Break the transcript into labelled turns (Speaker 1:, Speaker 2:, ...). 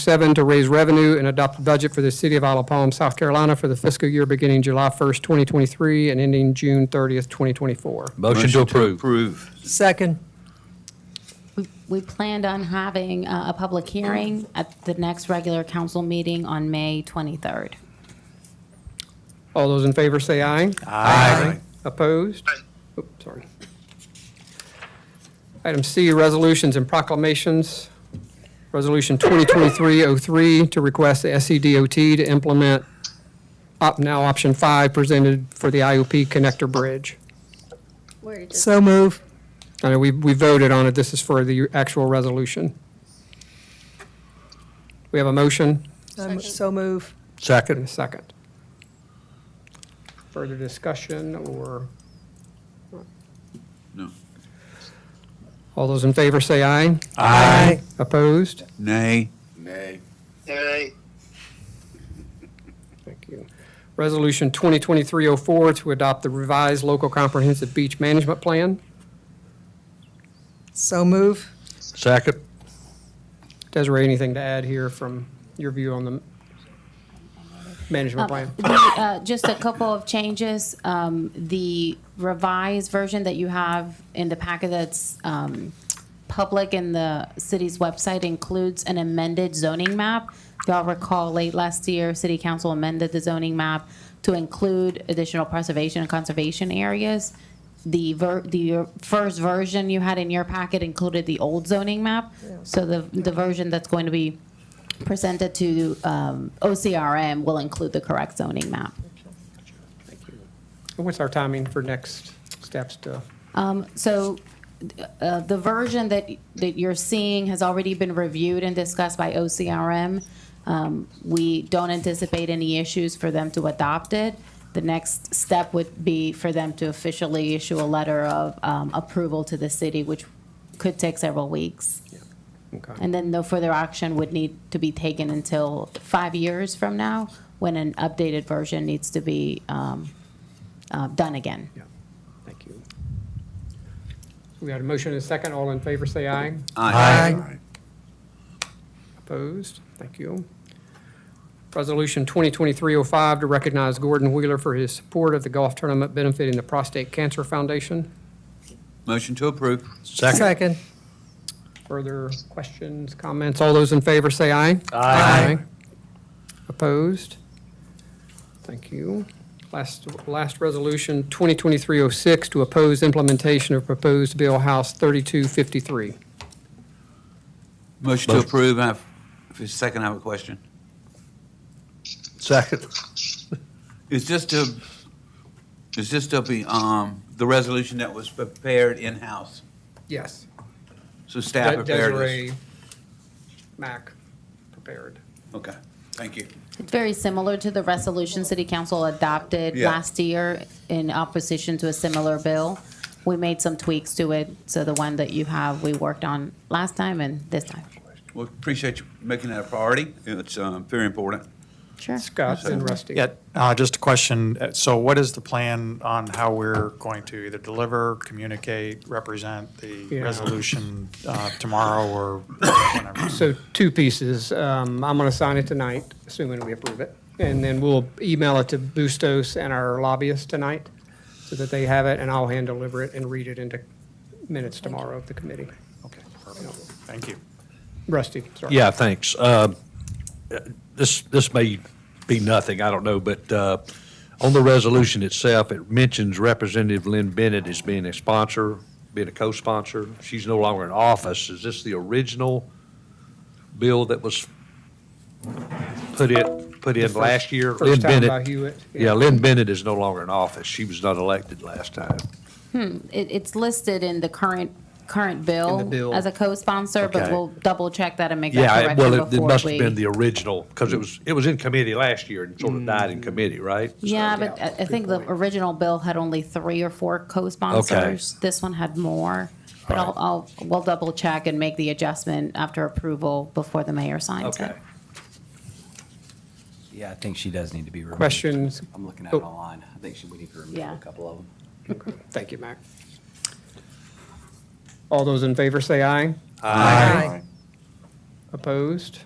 Speaker 1: seven, to raise revenue and adopt a budget for the city of Isle of Palm, South Carolina for the fiscal year beginning July 1st, 2023 and ending June 30th, 2024.
Speaker 2: Motion to approve.
Speaker 3: Approve.
Speaker 4: Second.
Speaker 5: We planned on having uh, a public hearing at the next regular council meeting on May 23rd.
Speaker 1: All those in favor say aye. Aye. Opposed? Oops, sorry. Item C, resolutions and proclamations. Resolution 2023-03 to request the E SCDOT to implement Opt Now Option 5 presented for the IOP Connector Bridge.
Speaker 4: So move.
Speaker 1: I know we, we voted on it, this is for the actual resolution. We have a motion
Speaker 4: I'm- So move.
Speaker 1: and
Speaker 2: Second.
Speaker 1: a second. Further discussion or?
Speaker 3: No.
Speaker 1: All those in favor say aye.
Speaker 4: Aye.
Speaker 1: Opposed?
Speaker 3: Nay.
Speaker 6: Nay.
Speaker 1: Thank you. Resolution 2023-04 to adopt the revised local comprehensive beach management plan.
Speaker 4: So move.
Speaker 2: Second.
Speaker 1: Desiree, anything to add here from your view on the management plan?
Speaker 5: The, uh, Just a couple of changes. Um, The revised version that you have in the packet that's um, public in the city's website includes an amended zoning map. If Y'all recall late last year, city council amended the zoning map to include additional preservation and conservation areas. The ver, the first version you had in your packet included the old zoning map. So the, the version that's going to be presented to um, OCRM will include the correct zoning map.
Speaker 1: What's our timing for next steps to?
Speaker 5: Um, So uh, the version that, that you're seeing has already been reviewed and discussed by OCRM. Um, We don't anticipate any issues for them to adopt it. The next step would be for them to officially issue a letter of um, approval to the city, which could take several weeks.
Speaker 1: Okay.
Speaker 5: And then no further action would need to be taken until five years from now, when an updated version needs to be um, uh, done again.
Speaker 1: Yeah, thank you. We had a motion and a second. All in favor, say aye.
Speaker 4: Aye.
Speaker 1: Opposed? Thank you. Resolution 2023-05 to recognize Gordon Wheeler for his support of the golf tournament benefiting the Prostate Cancer Foundation.
Speaker 3: Motion to approve.
Speaker 2: Second.
Speaker 4: Second.
Speaker 1: Further questions, comments? All those in favor say aye.
Speaker 2: Aye.
Speaker 1: Opposed? Thank you. Last, last resolution, 2023-06 to oppose implementation of proposed Bill House 3253.
Speaker 3: Motion to approve. I have, for a second, I have a question.
Speaker 2: Second.
Speaker 3: Is this to, is this to be, um, the resolution that was prepared in-house?
Speaker 1: Yes.
Speaker 3: So staff prepared this?
Speaker 1: Desiree Mac prepared.
Speaker 3: Okay, thank you.
Speaker 5: It's very similar to the resolution City Council adopted
Speaker 3: Yeah.
Speaker 5: last year in opposition to a similar bill. We made some tweaks to it, so the one that you have, we worked on last time and this time.
Speaker 3: Well, appreciate you making that a priority. It's, um, very important.
Speaker 5: Sure.
Speaker 1: Scott and Rusty.
Speaker 7: Yeah, uh, just a question. Uh, So what is the plan on how we're going to either deliver, communicate, represent the
Speaker 1: Yeah.
Speaker 7: resolution uh, tomorrow or whenever?
Speaker 1: So two pieces. Um, I'm going to sign it tonight, assuming we approve it. And then we'll email it to Bustos and our lobbyists tonight so that they have it, and I'll hand deliver it and read it into minutes tomorrow of the committee.
Speaker 7: Okay, perfect. Thank you.
Speaker 1: Rusty, sorry.
Speaker 2: Yeah, thanks. Uh, This, this may be nothing, I don't know, but uh, on the resolution itself, it mentions Representative Lynn Bennett as being a sponsor, being a co-sponsor. She's no longer in office. Is this the original bill that was put in, put in last year? Lynn
Speaker 1: First time
Speaker 2: Bennett-
Speaker 1: by Hewitt.
Speaker 2: Yeah, Lynn Bennett is no longer in office. She was not elected last time.
Speaker 5: It, it's listed in the current, current bill.
Speaker 1: In the bill.
Speaker 5: As a co-sponsor, but
Speaker 2: Okay.
Speaker 5: we'll double check that and make that
Speaker 2: Yeah, well,
Speaker 5: correction
Speaker 2: it- it
Speaker 5: before
Speaker 2: must have
Speaker 5: we- Mm.
Speaker 2: been the original, because it was, it was in committee last year and sort of died in committee, right?
Speaker 5: Yeah, but I, I think the original bill had only three or four co-sponsors. This one had more. But I'll, I'll, we'll double check and make the adjustment after approval before the mayor signs it.
Speaker 2: Okay.
Speaker 8: Yeah, I think she does need to be removed.
Speaker 1: Questions?
Speaker 8: I'm looking at
Speaker 1: Oh.
Speaker 8: it online. I think she, we need to remove
Speaker 5: Yeah.
Speaker 8: a couple of them.
Speaker 1: Thank you, Mac. All those in favor say aye.
Speaker 4: Aye.
Speaker 1: Opposed?